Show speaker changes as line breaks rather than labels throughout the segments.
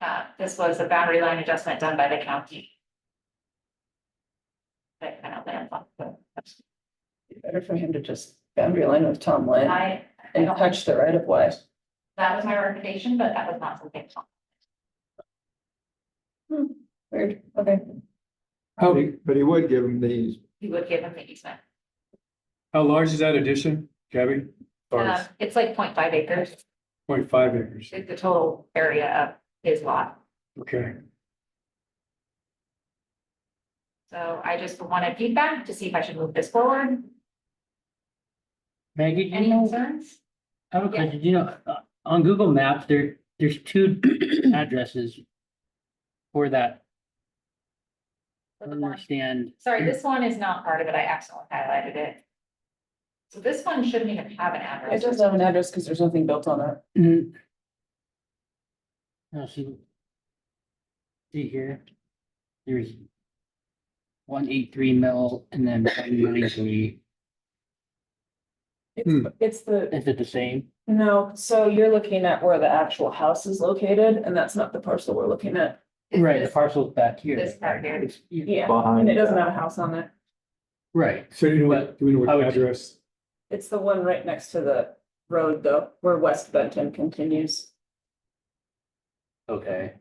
Uh, This was a boundary line adjustment done by the county. That kind of land, but
Better for him to just boundary line with Tom Lane
I, I
and
don't-
touch the right of way.
that was my recommendation, but that was not something.
Weird, okay.
How,
But he would give him these.
You would give him the easement.
how large is that addition, Gabby? Or
Uh, it's like 0.5 acres,
point five acres,
is the total area of his lot.
okay.
So I just wanted feedback to see if I should move this forward.
Maggie, do you
Any
Mm.
know,
concerns?
I have a
yeah.
question, Do you know, uh, on Google Maps, there, there's two addresses for that. I don't
Mm.
understand,
Sorry, this one is not part of it. I accidentally highlighted it. So this one shouldn't even have an address.
It doesn't have an address because there's nothing built on it.
Mm. Now, see. See here, there's one eight three mill and then one nine three,
Hmm.
It's- It's the,
is it the same?
no, so you're looking at where the actual house is located and that's not the parcel we're looking at.
It's
Right, the
this-
parcel's back here.
This part here.
It's- yeah,
Yeah, and
Behind.
it doesn't have a house on it.
Right,
So do you know what, do we know
I
what
would-
address?
It's the one right next to the road though, where West Benton continues.
okay,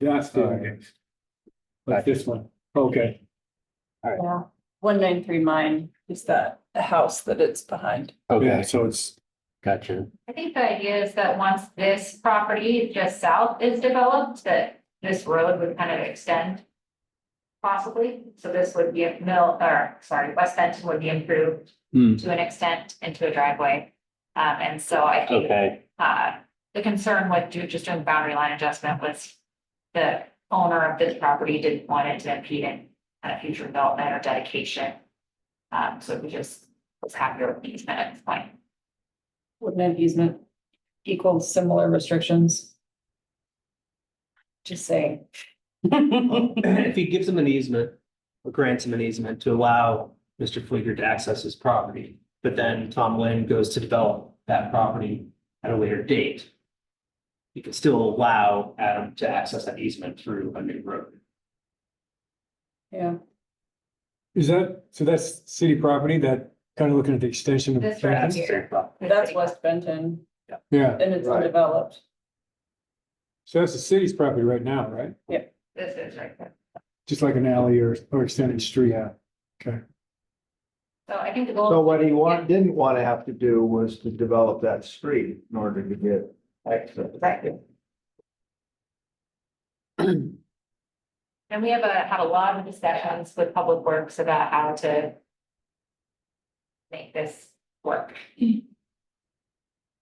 That's the, one. like this one, okay,
Yeah. One nine three mine is that, the house that it's behind.
yeah,
okay,
so it's,
gotcha.
I think the idea is that once this property just south is developed, that this road would kind of extend. Possibly, so this would be a mill, or sorry, West Benton would be improved
Hmm.
to an extent into a driveway. Um, and so I think,
Okay,
uh, the concern with do- just doing boundary line adjustment was. The owner of this property didn't want it to impede in uh, future development or dedication. Um, so we just was happier with these minutes, point.
Wouldn't an easement equal similar restrictions? Just saying.
if he gives him an easement or grants him an easement to allow Mr. Fleeger to access his property, but then Tom Lynn goes to develop that property at a later date. He could still allow Adam to access that easement through a new road.
Yeah,
is that, so that's city property, that kind of looking at the extension of.
This right
That's
here.
their problem.
that's West Benton
Yeah,
and it's
Right.
undeveloped.
so that's the city's property right now, right?
This is right there.
Just like an alley or, or extended street, yeah, okay.
So I think the
So
goal,
what he want, didn't want to have to do was to develop that street in order to get access.
Right. and we have a, had a lot of discussions with Public Works about how to make this work.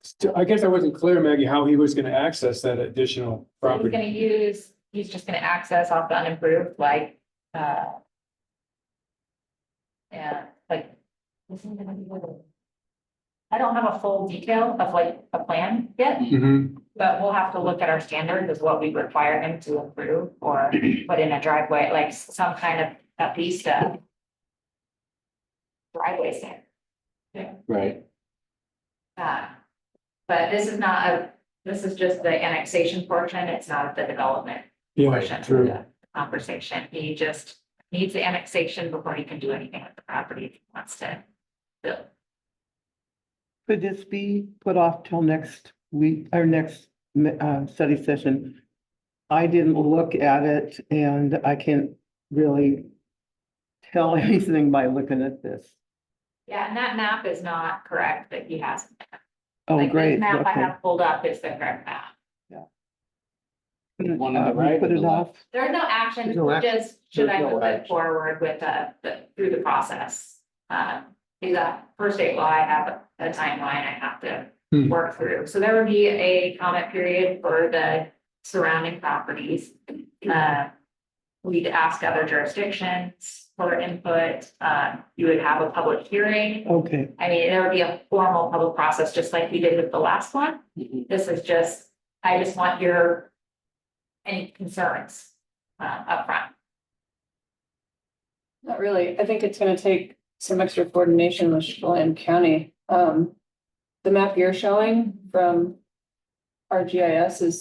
Still, I guess I wasn't clear, Maggie, how he was gonna access that additional
So He's gonna
property.
use, he's just gonna access off the unimproved, like, uh, yeah, like, this is gonna be little. I don't have a full detail of like a plan yet,
Mm-hmm.
Mhm.
But we'll have to look at our standards as what we require him to improve or put in a driveway, like some kind of at least a. Driveway standard.
right,
Uh, but this is not a, this is just the annexation portion. It's not the development
Yeah,
portion of
true.
the conversation. He just needs the annexation before he can do anything with the property if he wants to build.
Could this be put off till next week, or next uh, study session? I didn't look at it and I can't really tell anything by looking at this.
Yeah, and that map is not correct that he has.
Oh,
Like, this
great.
Map I
okay.
have pulled up is the correct map.
One on the
Uh, we
right
Put
or
it
the
off.
There's no action,
There's no
we're
action.
just, should I
There's no
move it
action.
forward with the, the, through the process? Uh, in the per state law, I have a timeline I have to
Hmm.
work through, so there would be a comment period for the surrounding properties. Uh, we'd ask other jurisdictions for input, uh, you would have a public hearing.
Okay,
I mean, there would be a formal public process, just like we did with the last one. This is just, I just want your, any concerns, uh, upfront.
Not really. I think it's gonna take some extra coordination with Chelan County. Um, the map you're showing from our GIS is